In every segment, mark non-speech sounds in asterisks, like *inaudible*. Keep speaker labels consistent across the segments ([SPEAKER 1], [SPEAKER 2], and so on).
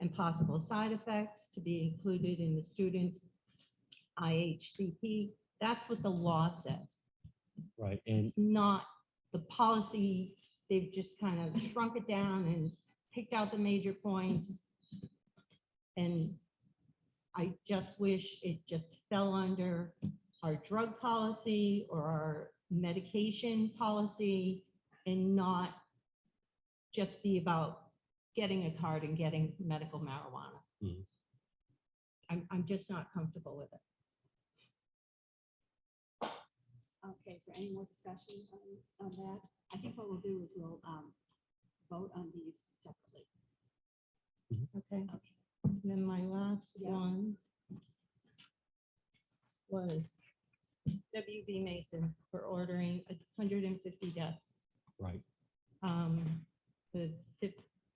[SPEAKER 1] and possible side effects to be included in the student's IHCP. That's what the law says.
[SPEAKER 2] Right, and
[SPEAKER 1] It's not the policy, they've just kind of shrunk it down and picked out the major points. And I just wish it just fell under our drug policy or our medication policy and not just be about getting a card and getting medical marijuana.
[SPEAKER 2] Mhm.
[SPEAKER 1] I'm, I'm just not comfortable with it.
[SPEAKER 3] Okay, is there any more discussion on, on that? I think what we'll do is we'll, um, vote on these separately.
[SPEAKER 1] Okay, and Um, then my last
[SPEAKER 3] Yeah.
[SPEAKER 1] one was WB Mason for ordering hundred and fifty desks,
[SPEAKER 2] right,
[SPEAKER 1] um, with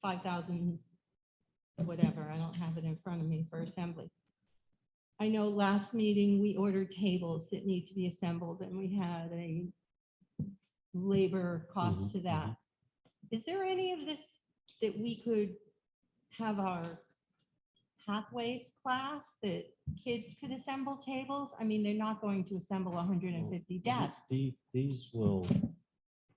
[SPEAKER 1] five thousand, whatever, I don't have it in front of me for assembly. I know last meeting, we ordered tables that need to be assembled, and we had a labor cost
[SPEAKER 2] Mhm,
[SPEAKER 1] to that. Is there any of this that we could have our pathways class that kids could assemble tables? I mean, they're not going to assemble hundred and fifty desks.
[SPEAKER 2] Oh, The-
[SPEAKER 1] *laughs*
[SPEAKER 2] These will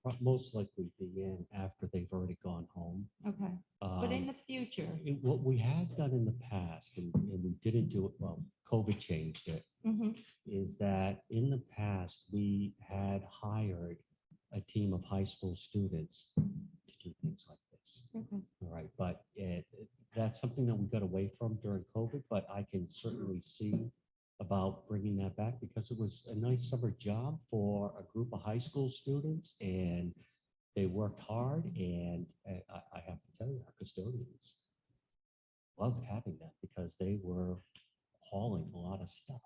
[SPEAKER 2] pro- most likely be in after they've already gone home.
[SPEAKER 1] Okay, but in
[SPEAKER 2] Um,
[SPEAKER 1] the future,
[SPEAKER 2] it- What we have done in the past, and and we didn't do it, well, COVID changed it,
[SPEAKER 1] Mhm,
[SPEAKER 2] is that in the past, we had hired a team of high school students to do things like this.
[SPEAKER 1] okay.
[SPEAKER 2] All right, but it, it- that's something that we got away from during COVID, but I can certainly see about bringing that back because it was a nice summer job for a group of high school students and they worked hard and I, I- I have to tell you, our custodians loved having that because they were hauling a lot of stuff,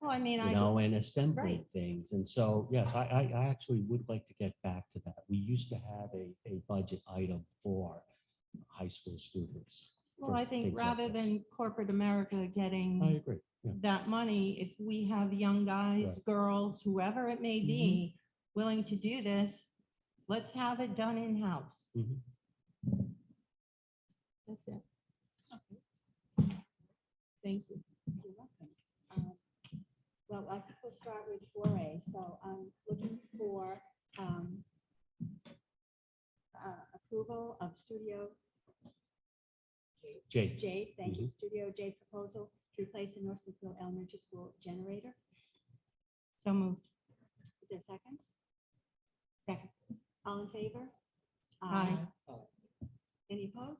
[SPEAKER 1] Well, I mean,
[SPEAKER 2] you
[SPEAKER 1] I.
[SPEAKER 2] know, and assembling
[SPEAKER 1] right.
[SPEAKER 2] things. And so, yes, I, I, I actually would like to get back to that. We used to have a, a budget item for high school students.
[SPEAKER 1] Well, I
[SPEAKER 2] for
[SPEAKER 1] think
[SPEAKER 2] things like
[SPEAKER 1] rather
[SPEAKER 2] this.
[SPEAKER 1] than corporate America
[SPEAKER 2] I
[SPEAKER 1] getting
[SPEAKER 2] agree. Yeah,
[SPEAKER 1] that money, if we have young guys,
[SPEAKER 2] Right.
[SPEAKER 1] girls, whoever it may
[SPEAKER 2] Mhm.
[SPEAKER 1] be, willing to do this, let's have it done in-house.
[SPEAKER 2] Mhm.
[SPEAKER 1] That's it.
[SPEAKER 3] Okay.
[SPEAKER 1] Thank you.
[SPEAKER 3] You're welcome. Um, Well, I think we'll start with four A, so I'm looking for, um, uh, approval of Studio
[SPEAKER 2] Jake,
[SPEAKER 3] J, thank you, Studio J's proposal to replace the Northfield Elementary School generator.
[SPEAKER 1] So moved.
[SPEAKER 3] Is there a second?
[SPEAKER 1] Second.
[SPEAKER 3] All in favor?
[SPEAKER 1] Aye.
[SPEAKER 3] Any opposed?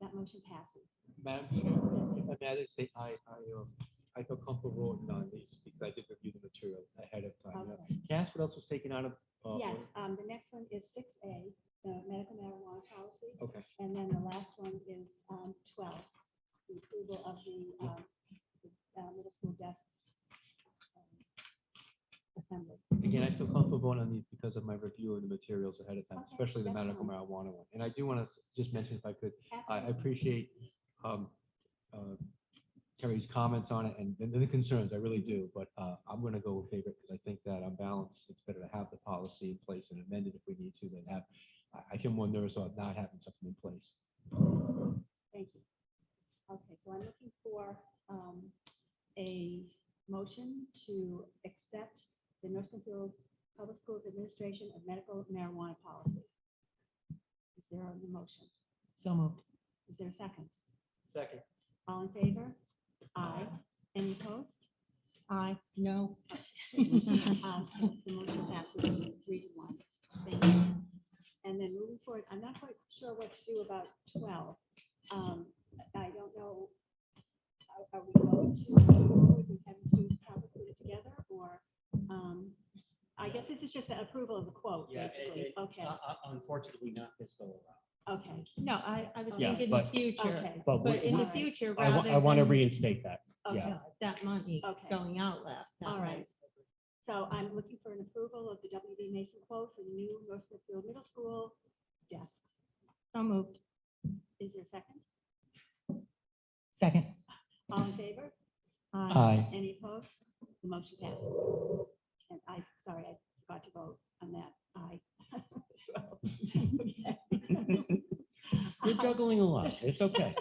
[SPEAKER 3] That motion passes.
[SPEAKER 4] Madam Chair, if I may, I just say I, I, um, I feel comfortable on these because I did review the material ahead of time.
[SPEAKER 3] Okay.
[SPEAKER 4] Can I ask what else was taken out of? uh,
[SPEAKER 3] Yes, um, the next one is six A, the medical marijuana policy,
[SPEAKER 4] Okay,
[SPEAKER 3] and then the last one is, um, twelve, the approval of the, um, the, uh, middle school desk assembly.
[SPEAKER 4] again, I feel comfortable on these because of my review of the materials ahead of time,
[SPEAKER 3] Okay,
[SPEAKER 4] especially the
[SPEAKER 3] that's
[SPEAKER 4] medical
[SPEAKER 3] fine.
[SPEAKER 4] marijuana one. And I do want to just mention if I could, I I
[SPEAKER 3] Absolutely.
[SPEAKER 4] appreciate um, uh, Terry's comments on it and and the concerns, I really do, but uh, I'm going to go with favorite because I think that on balance, it's better to have the policy in place and amend it if we need to than have, I- I feel more nervous about not having something in place.
[SPEAKER 3] Thank you. Okay, so I'm looking for um, a motion to accept the Northfield Public Schools Administration of Medical Marijuana Policy. Is there a motion?
[SPEAKER 1] So moved.
[SPEAKER 3] Is there a second?
[SPEAKER 4] Second.
[SPEAKER 3] All in favor? Aye. Any opposed?
[SPEAKER 1] Aye,
[SPEAKER 3] *laughs*
[SPEAKER 1] no.
[SPEAKER 3] Um, The motion passes three to one. Thank you. And then moving forward, I'm not quite sure what to do about 12. Um, I don't know, are- are we going to, move and have students conference put it together or? um, I guess this is just the approval of the quote,
[SPEAKER 5] Yeah, it-
[SPEAKER 3] basically.
[SPEAKER 5] it-
[SPEAKER 3] Okay,
[SPEAKER 5] Uh, uh, Unfortunately, not this go around.
[SPEAKER 3] okay,
[SPEAKER 1] No, I, I was
[SPEAKER 2] Yeah,
[SPEAKER 1] thinking the
[SPEAKER 2] but-
[SPEAKER 1] future,
[SPEAKER 3] okay,
[SPEAKER 2] but
[SPEAKER 1] but in the
[SPEAKER 2] we-
[SPEAKER 3] Alright.
[SPEAKER 1] future,
[SPEAKER 2] I, wa-
[SPEAKER 1] rather
[SPEAKER 2] I want to
[SPEAKER 1] than
[SPEAKER 2] reinstate that.
[SPEAKER 3] okay.
[SPEAKER 2] Yeah.
[SPEAKER 1] that money
[SPEAKER 3] Okay.
[SPEAKER 1] going out left. that
[SPEAKER 3] All
[SPEAKER 1] money.
[SPEAKER 3] right. So I'm looking for an approval of the WB Mason quote for the new North Smithfield Middle School desks.
[SPEAKER 1] So moved.
[SPEAKER 3] Is there a second?
[SPEAKER 1] Second.
[SPEAKER 3] All in favor?
[SPEAKER 2] Aye.
[SPEAKER 3] Any opposed? The motion passes. And I, sorry, I forgot to vote on that. Aye. *laughs* So, *laughs* okay.
[SPEAKER 2] You're juggling a lot. It's okay.